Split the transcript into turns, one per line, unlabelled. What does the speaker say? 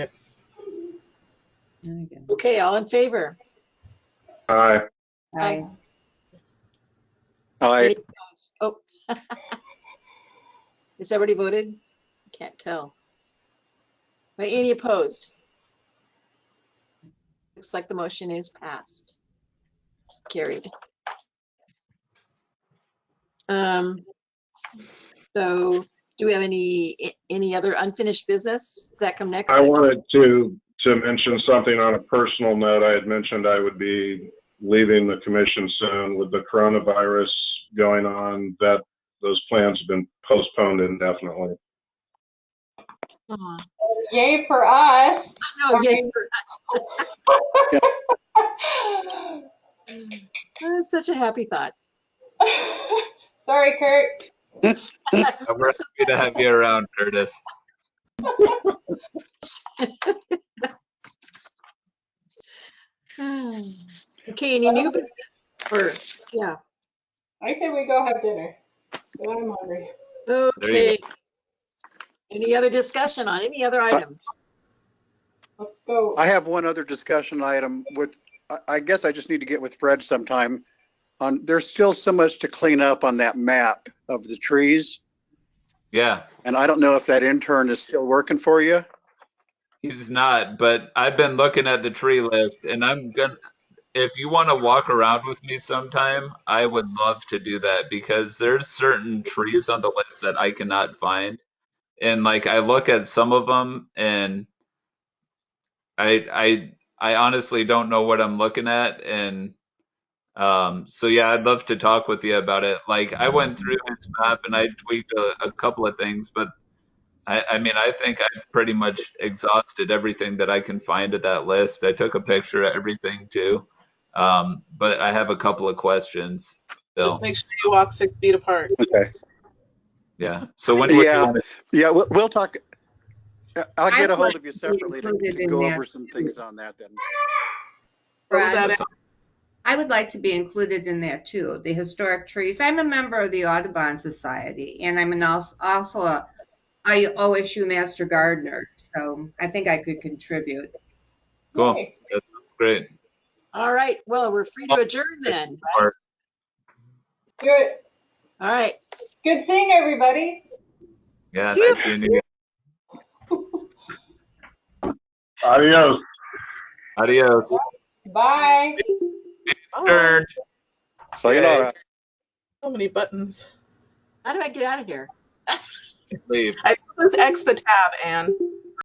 There you go.
Okay, all in favor?
Aye.
Aye.
Aye.
Oh. Has everybody voted? Can't tell. Wait, Any opposed? Looks like the motion is passed. Carried. Um, So do we have any, any other unfinished business? Does that come next?
I wanted to, to mention something on a personal note. I had mentioned I would be leaving the commission soon with the coronavirus going on, that those plans have been postponed indefinitely.
Aw,
Yay for us.
No, yay for That's such a happy thought.
Sorry, Kurt.
I'm really happy to have you around, Curtis.
Okay, any new business? Or, yeah,
I say we go have dinner. But I'm hungry.
okay. Any other discussion on any other items?
Let's go.
I have one other discussion item with, I- I guess I just need to get with Fred sometime. On, there's still so much to clean up on that map of the trees.
Yeah,
And I don't know if that intern is still working for you.
he's not, but I've been looking at the tree list and I'm gonna, if you want to walk around with me sometime, I would love to do that because there's certain trees on the list that I cannot find. And like I look at some of them and I I I honestly don't know what I'm looking at and um so yeah, I'd love to talk with you about it. Like I went through his map and I tweaked a, a couple of things, but I, I mean, I think I've pretty much exhausted everything that I can find of that list. I took a picture of everything too. Um, but I have a couple of questions still.
Just make sure you walk six feet apart.
Okay.
Yeah. So when would
Yeah.
you,
Yeah, we'll, we'll talk. I'll
I
get a
want
hold of you separately to
included
to
in
go
that.
over some things on that then.
What was
Brad.
that?
I would like to be included in that too, the historic trees. I'm a member of the Audubon Society and I'm an als- also a I OSU Master Gardener, so I think I could contribute.
cool.
Nice.
That sounds great.
All right, well, we're free to
Oh.
adjourn then.
Or-
Good.
All right,
Good seeing everybody.
Yeah,
Yeah.
nice seeing you.
Adios.
Adios.
Bye.
Stern.
Sayonara.
So many buttons.
how do I get out of here?
Leave.
Let's X the tab, Anne.